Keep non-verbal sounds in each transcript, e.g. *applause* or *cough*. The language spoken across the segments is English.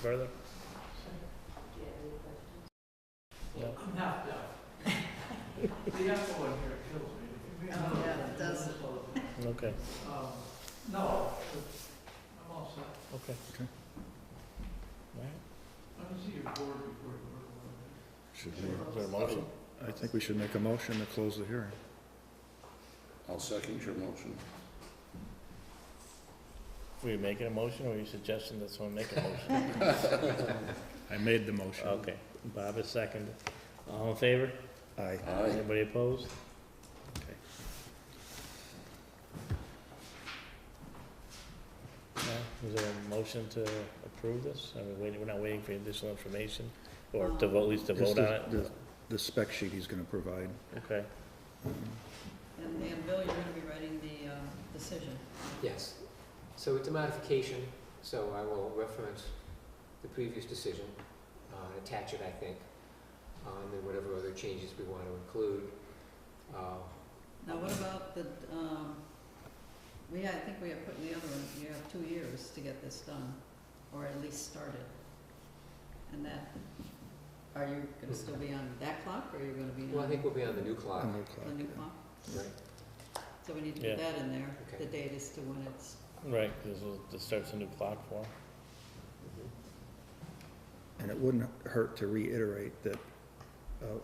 further? The echo in here kills me. Oh, yeah, it does. Okay, Um, No, I'm all set. okay. Okay. All right. Let me see your board before you work on it. Should Is there a motion? I think we should make a motion to close the hearing. I'll second your motion. Were you making a motion, or were you suggesting that someone make a motion? *laughs* I made the motion. Okay, Bob is second. All in favor? Aye. Aye. Anybody opposed? Okay. Now, Is there a motion to approve this? I mean, wait- we're not waiting for additional information, or to vote, at least to Just vote on it? the- The spec sheet he's gonna provide. Okay, And, and Bill, you're gonna be writing the, uh, decision. Yes, so it's a modification, so I will reference the previous decision, uh, and attach it, I think, uh, and then whatever other changes we want to include. Uh, Now, what about the, um, we, I think we have put in the other one, you have two years to get this done, or at least started. And that, are you gonna still be on that clock, or are you gonna be Hmm. Well, I think on we'll be on the new clock, on the the clock, new yeah. clock? right? So we need to Yeah. put that in there, Okay. the date is to when it's, right, this will, this starts a new clock for 'em. And it wouldn't hurt to reiterate that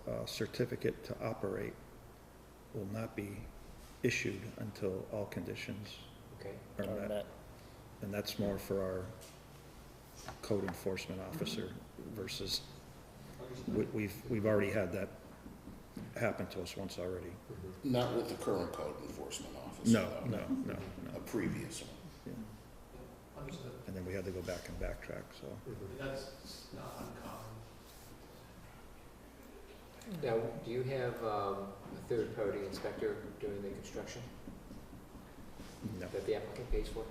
a, a certificate to operate will not be issued until all conditions Okay, are on met. that. And that's more for our code enforcement officer versus, we, we've, we've already had that happen to us once already. mhm. Not with the current code enforcement officer. No, though. no, no, A no. previous one. Understood. And then we had to go back and backtrack, so. Mhm. That's not uncommon. Now, do you have um, a third-party inspector during the construction No, that the applicant pays for?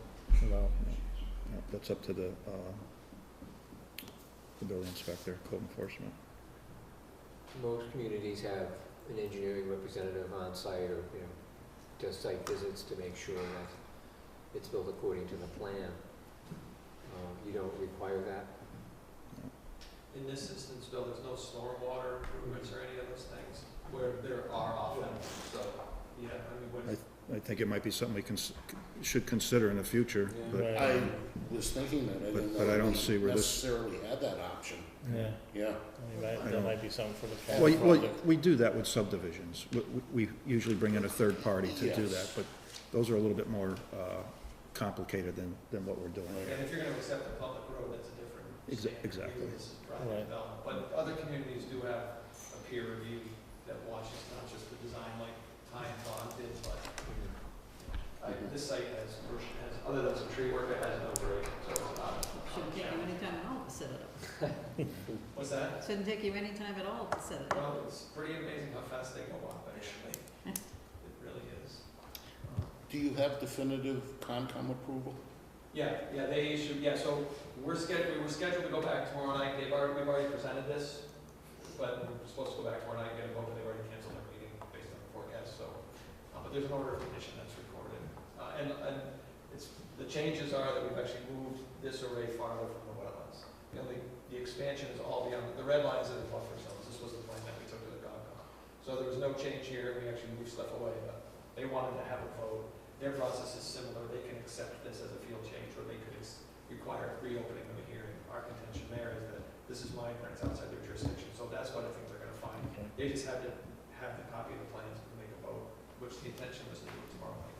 No, no, that's up to the, uh, the building inspector, code enforcement. Most communities have an engineering representative on site or, you know, does site visits to make sure that it's built according to the plan. Uh, You don't require that? In this instance, Bill, there's no stormwater improvements or any of those things where there are often, so, yeah, I mean, what, I think it might be something we cons- should consider in the future, Yeah. but right, I was thinking that, I But- didn't know but I don't we see where this- Necessarily had that option, Yeah, yeah. I mean, that, I that don't- might be something for the. Well, capital you- well, project. we do that with subdivisions. We- We we usually bring in a third party to do that, Yes. but those are a little bit more uh, complicated than, than what we're doing and here. if you're gonna accept a public road, that's a different Exa- standard. exactly. This is Right. private development, but other communities do have a peer review that watches not just the design like Ty and Todd did, but I, this site has, has, other than some tree work, it has no break, so it's not. shouldn't take you any time at all to set it up. What's that? Shouldn't take you any time at all to set it up. Well, it's pretty amazing how fast they go up, actually. It really is. Do you have definitive Concom approval? Yeah, yeah, they issued, yeah, so we're scheduled, we're scheduled to go back tomorrow night, they've already, we've already presented this, but we're supposed to go back tomorrow night, and get a vote, but they've already canceled their meeting based on the forecast, so, uh, but there's an order of condition that's recorded. Uh, and, and it's, the changes are that we've actually moved this array farther from the wetlands. You know, the, the expansion is all beyond, the red lines are the buffer zones, this was the plan that we took to the Concom. So there was no change here, we actually moved stuff away, but they wanted to have a vote, their process is similar, they can accept this as a field change, or they could ex- require reopening of a hearing. Our contention there is that this is mine, but it's outside their jurisdiction, so that's what I think they're gonna find. Okay. They just had to have the copy of the plans and make a vote, which the intention was to do tomorrow night,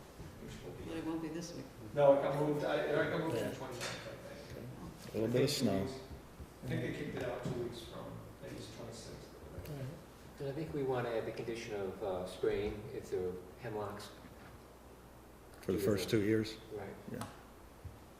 which will be. But it won't be this week. No, it got moved, I, it got moved to Yeah. the twenty-ninth, I think. A little bit of snow. I think they kicked it out two weeks from, I think it's twenty-sixth. All right. And I think we want to add the condition of uh, spraying if there are hemlocks. For the first two years, Right.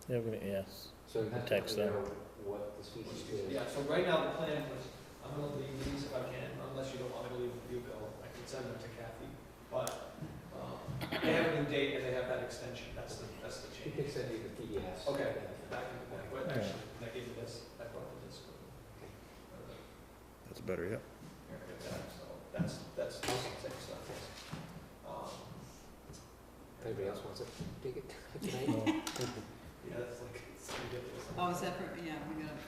Yeah, we're gonna, yes. So you have Protects to them. know what the *laughs* species is. Yeah, so right now, the plan was, I'm gonna leave these if I can, unless you don't want me to leave with you, Bill, I can send them to Kathy. But, um, they have a new date and they have that extension, that's the, that's the We change. can send you the PDFs. Okay. Back in the back, but Yeah. actually, I gave you this, I brought the disc. Uh, Here, that's better, yeah. I got that, so that's, that's the same stuff. Um, If anybody else wants to take it tonight? No. Yeah, that's like, it's ridiculous. Oh, is that for, yeah, we gotta